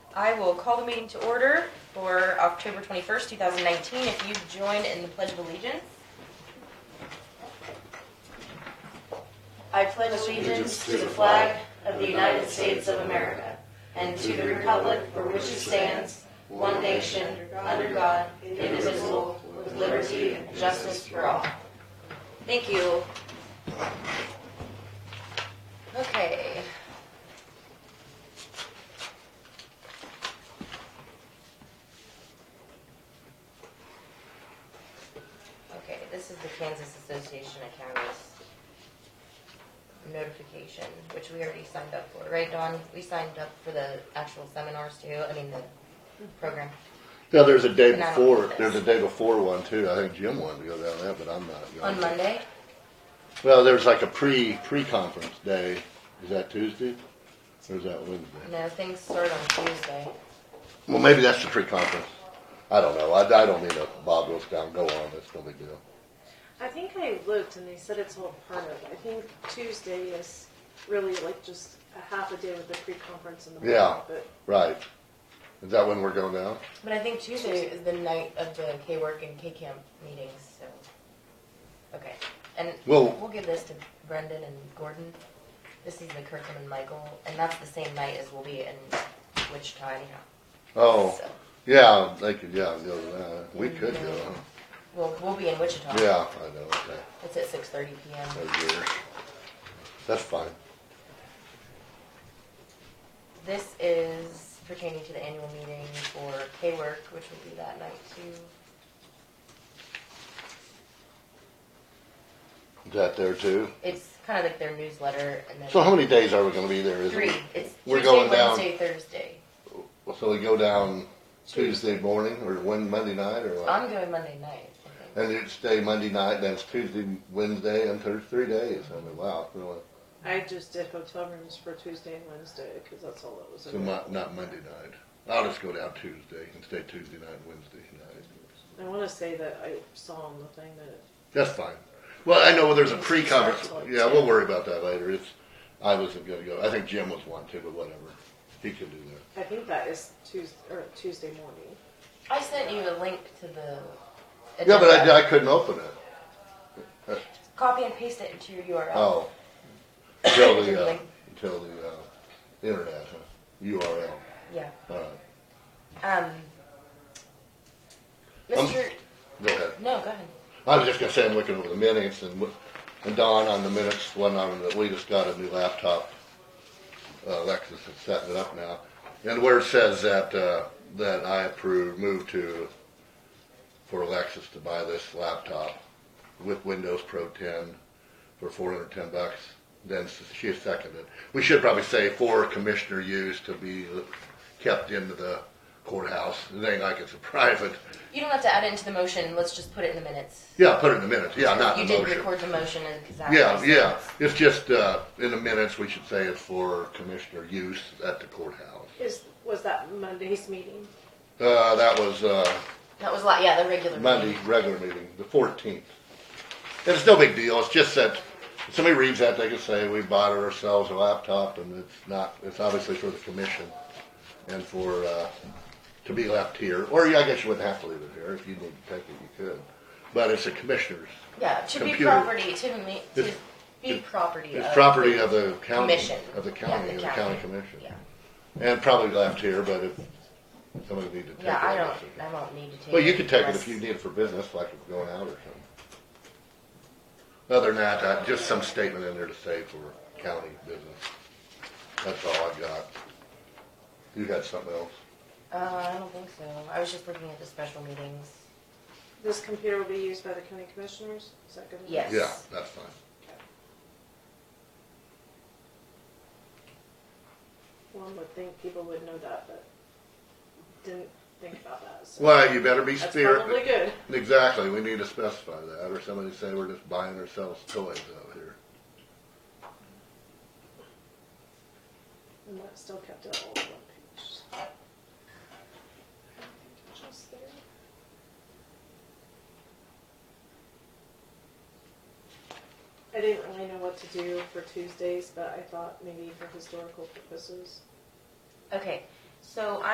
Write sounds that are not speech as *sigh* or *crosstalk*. I will call the meeting to order for October 21st, 2019. If you join in the Pledge of Allegiance. I pledge allegiance to the flag of the United States of America and to the republic for which it stands, one nation, under God, indivisible, with liberty and justice for all. Thank you. Okay. Okay, this is the Kansas Association of Counties notification, which we already signed up for, right, Dawn? We signed up for the actual seminars too, I mean, the program. Yeah, there's a day And I don't before, like there's a this. day before one too. I think Jim wanted to go down there, but I'm not going. On Monday? Well, there's like a pre, pre-conference day. Is that Tuesday? Or is that Wednesday? No, things start on Tuesday. Well, maybe that's the pre-conference. I don't know. I, I don't mean to Bob goes down, go on. That's no big deal. I think I looked and they said it's all part of. it. I think Tuesday is really like just a half a day with the pre-conference and the Yeah. workshop, But Right. Is that when we're going down? But I think Tuesday is the night of the K work and K camp meetings, so. Okay, and Well- we'll give this to Brendan and Gordon. This is the Kirkham and Michael, and that's the same night as we'll be in Wichita anyhow. Oh, So, yeah, they could, yeah, go to that. We could go, huh? Well, we'll be in Wichita. Yeah, I know, okay. It's at six thirty PM. That's weird. That's fine. This is pertaining to the annual meeting for K work, which will be that night too. Is that there too? It's kind of like their newsletter and then. So how many days are we gonna be there? Is it- Three, it's We're Tuesday, going down. Wednesday, Thursday. So we go down Tuesday morning or when Monday night or what? I'm going Monday night, I think. And it's day Monday night, then it's Tuesday, Wednesday, and Thursday, three days. I mean, wow, it's really, I just did hotel rooms for Tuesday and Wednesday because that's all that was. so available. not, not Monday night. I'll just go down Tuesday and stay Tuesday night, Wednesday night. I want to say that I saw on the thing that it, That's fine. Well, I know well, there's a pre-conference. Yeah, we'll worry about that later. It's, I wasn't gonna go. I think Jim was wanting to, but whatever. He can do that. I think that is Tuesday or Tuesday morning. I sent you a link to the. Yeah, but agenda. I, I couldn't open it. Copy and paste it into your URL. Oh. Until the, uh, Link. until the, uh, internet, huh? URL. Yeah. All right. Um. Um, Mr. Go ahead. no, go ahead. I was just gonna say, I'm looking over the minutes and, what- and Don on the minutes, one on that we just got a new laptop. Uh, Alexis is setting it up now. And where it says that, uh, that I approve, move to, for Alexis to buy this laptop with Windows Pro ten for four hundred ten bucks, then she seconded. We should probably say for commissioner use to be kept into the courthouse. It ain't like it's a *laughs* private. You don't have to add it into the motion. Let's just put it in the minutes. Yeah, put it in the minutes. Yeah, not you in the did motion. record the motion and exactly. Yeah, yeah, it's just, uh, in the minutes, we should say it's for commissioner use at the courthouse. Is was that Monday's meeting? Uh, that was, uh, That was a lot. Yeah, the regular. Monday, meeting. regular meeting, the fourteenth. And it's no big deal, it's just that, if somebody reads that, they can say, we bought ourselves a laptop, and it's not, it's obviously for the commission, and for, uh, to be left here, or yeah, I guess you wouldn't have to leave it here, if you need to take it, you could, but it's the commissioners, Yeah, to be Computer. property to me to It's- be property. it's of property of the county, commission of the Yeah, county, of the county commission. Yeah. And probably left here, but if somebody need to take it. Yeah, I don't. guess it- I won't need to take. Well, you could take it unless- if you need it for business, like if you're going out or something. Other than that, uh, just some statement in there to say for county business. That's all I got. You got something else? Uh, I don't think so. I was just looking at the special meetings. This computer will be used by the county commissioners. Is that good? enough? Yes. Yeah, that's fine. One would think people would know that, but didn't think about that. So Well, you better be that's spirit. probably good. Exactly, we need to specify that, or somebody say we're just buying ourselves toys out here. And that still kept it all on one page. I don't think it's just there. I didn't really know what to do for Tuesdays, but I thought maybe for historical purposes. Okay, so